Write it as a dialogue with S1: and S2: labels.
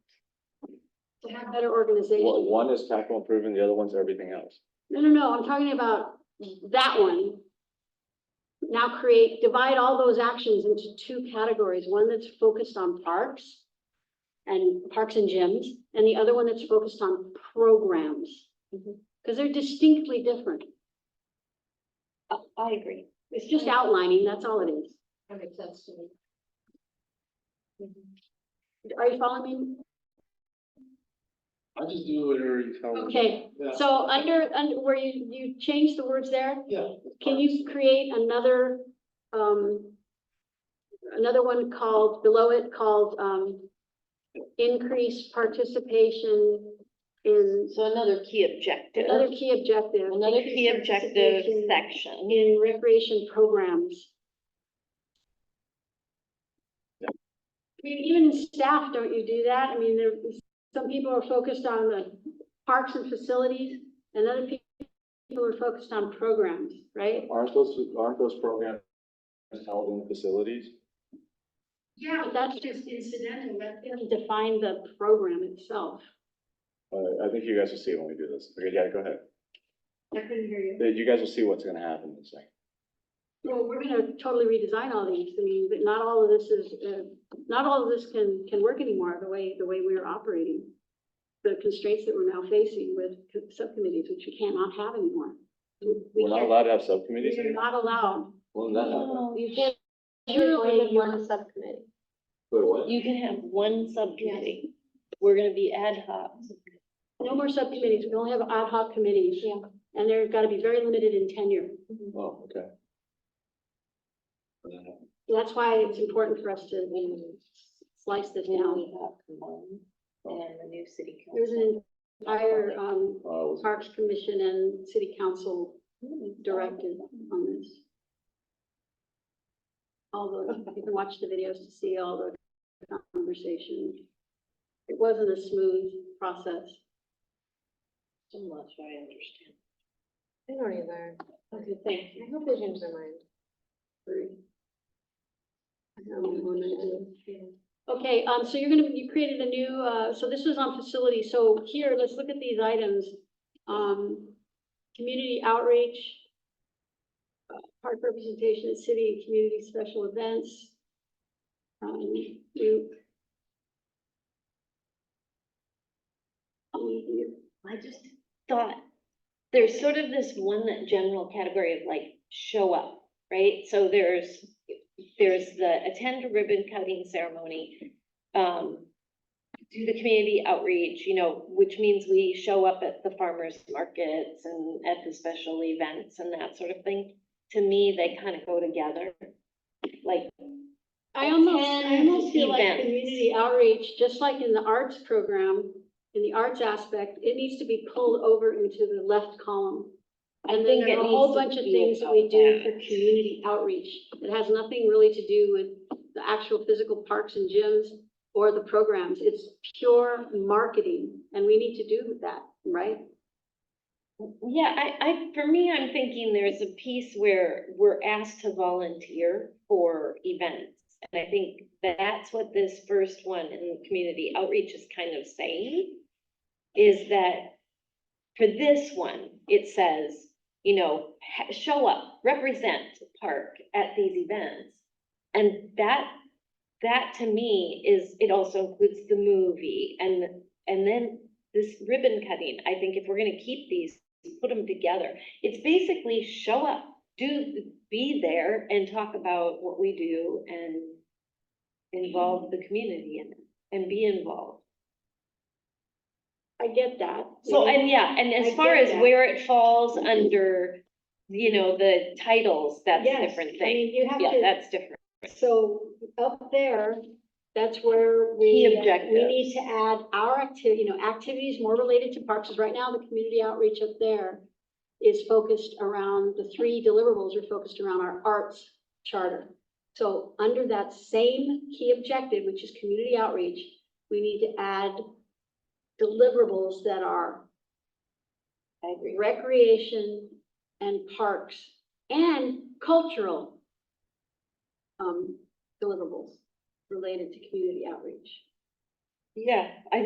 S1: have better
S2: One,
S1: organization.
S2: one is capital improvement, the other one's everything else.
S1: No, no, no, I'm talking about that one. Now create, divide all those actions into two categories, one that's focused on parks and parks and gyms, and the other one that's focused on programs.
S3: Mhm.
S1: Because they're distinctly different.
S3: I, I agree.
S1: It's just outlining, that's all it is.
S3: That makes sense to me. Mm-hmm.
S1: Are you following me?
S4: I just do whatever you tell me.
S1: Okay,
S4: Yeah.
S1: so under, under, where you, you changed the words there?
S4: Yeah.
S1: Can you create another, um, another one called, below it called, um, increase participation in
S3: So another key objective,
S1: another key objective.
S3: another key
S1: increase
S3: objective
S1: participation
S3: section.
S1: In recreation programs. I mean, even in staff, don't you do that? I mean, there, some people are focused on the parks and facilities and other pe- people are focused on programs, right?
S2: Aren't those, aren't those programs held in facilities?
S1: Yeah, but that's just incidental, that doesn't define the program itself.
S2: Uh, I think you guys will see when we do this. Okay, yeah, go ahead.
S3: I couldn't hear you.
S2: Uh, You guys will see what's gonna happen in a second.
S1: Well, we're gonna totally redesign all these, I mean, but not all of this is, uh, not all of this can, can work anymore, the way, the way we're operating. The constraints that we're now facing with co- subcommittees, which we cannot have anymore. We- We
S2: We're not
S1: can't,
S2: allowed to have subcommittees
S1: we're
S2: anymore.
S1: not allowed.
S2: Well, that happened.
S3: Oh, You can't,
S1: Surely you're-
S3: subcommittee.
S2: Wait, what?
S3: You can have one subcommittee. We're gonna be ad hoc.
S1: No more subcommittees, we only have ad hoc committees. Yeah. And they're gotta be very limited in tenure.
S3: Mm-hmm.
S2: Oh, okay. And then-
S1: That's why it's important for us to slice this down.
S3: And the new city
S1: There's an entire, um,
S2: uh, was-
S1: Parks Commission and City Council
S3: council.
S1: directed on this. Although, you can watch the videos to see all the conversation. It wasn't a smooth process.
S3: I'm not sure I understand. I don't either. Okay, thank you. I hope they change their mind.
S1: Okay, um, so you're gonna, you created a new, uh, so this was on facilities. so here, let's look at these items. Um, community outreach, uh, park representation at city and community special events. Um, you. Um, you-
S3: I just thought, there's sort of this one that general category of like, show up, right? So there's, there's the attend a ribbon cutting ceremony. Um, do the community outreach, you know, which means we show up at the farmers markets and at the special events and that sort of thing. To me, they kind of go together, like,
S1: I almost, I
S3: Attend
S1: almost feel like
S3: events.
S1: community outreach, just like in the arts program, in the arts aspect, it needs to be pulled over into the left column.
S3: I
S1: And then
S3: think
S1: there
S3: it
S1: are a whole
S3: needs to
S1: bunch of
S3: be
S1: things that
S3: about
S1: we do
S3: that.
S1: for community outreach. It has nothing really to do with the actual physical parks and gyms or the programs. It's pure marketing and we need to do that, right?
S3: Yeah, I, I, for me, I'm thinking there's a piece where we're asked to volunteer for events. And I think that's what this first one in community outreach is kind of saying. Is that for this one, it says, you know, ha- show up, represent park at these events. And that, that to me is, it also includes the movie and, and then this ribbon cutting. I think if we're gonna keep these put them together. It's basically show up, do, be there and talk about what we do and involve the community in it and be involved.
S1: I get that.
S3: So, and yeah, and
S1: I
S3: as far
S1: get
S3: as
S1: that.
S3: where it falls under, you know, the titles, that's a
S1: Yes,
S3: different
S1: I
S3: thing.
S1: mean, you have
S3: Yeah,
S1: to-
S3: that's different.
S1: So up there, that's where
S3: Key
S1: we,
S3: objectives.
S1: we need to add our activity, you know, activities more related to parks. Because right now, the community outreach up there is focused around, the three deliverables are focused around our arts charter. So under that same key objective, which is community outreach, we need to add deliverables that are
S3: I agree.
S1: recreation and parks and cultural um, deliverables related to community outreach.
S3: Yeah, I